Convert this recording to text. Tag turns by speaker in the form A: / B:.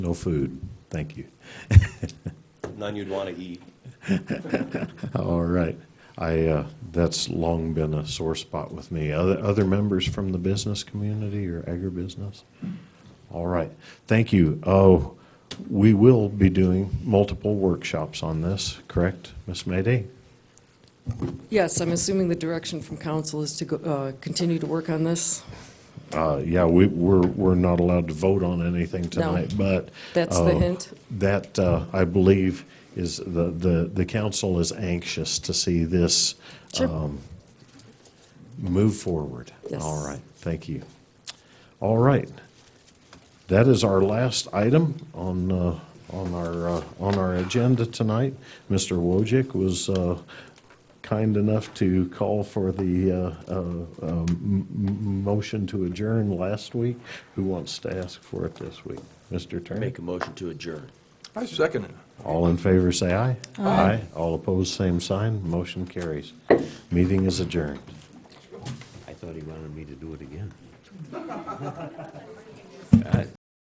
A: No food. Thank you.
B: None you'd want to eat.
A: All right. I, uh, that's long been a sore spot with me. Other, other members from the business community or agribusiness? All right. Thank you. Oh, we will be doing multiple workshops on this, correct, Ms. Mayday?
C: Yes, I'm assuming the direction from council is to go- uh, continue to work on this.
A: Uh, yeah, we, we're, we're not allowed to vote on anything tonight, but.
C: That's the
A: uh,
C: hint.
A: That, uh, I believe, is the, the, the council is anxious to see this
C: Sure.
A: move forward.
C: Yes.
A: All right, thank you. All right. That is our last item on, uh, on our, uh, on our agenda tonight. Mr. Wojcik was uh, kind enough to call for the uh, uh, um, m- m- motion to adjourn last week. Who wants to ask for it this week? Mr. Turner?
B: Make a motion to adjourn.
D: I second it.
A: All in favor, say aye. Aye. All opposed, same sign. Motion carries. Meeting is adjourned.
B: I thought he wanted me to do it again.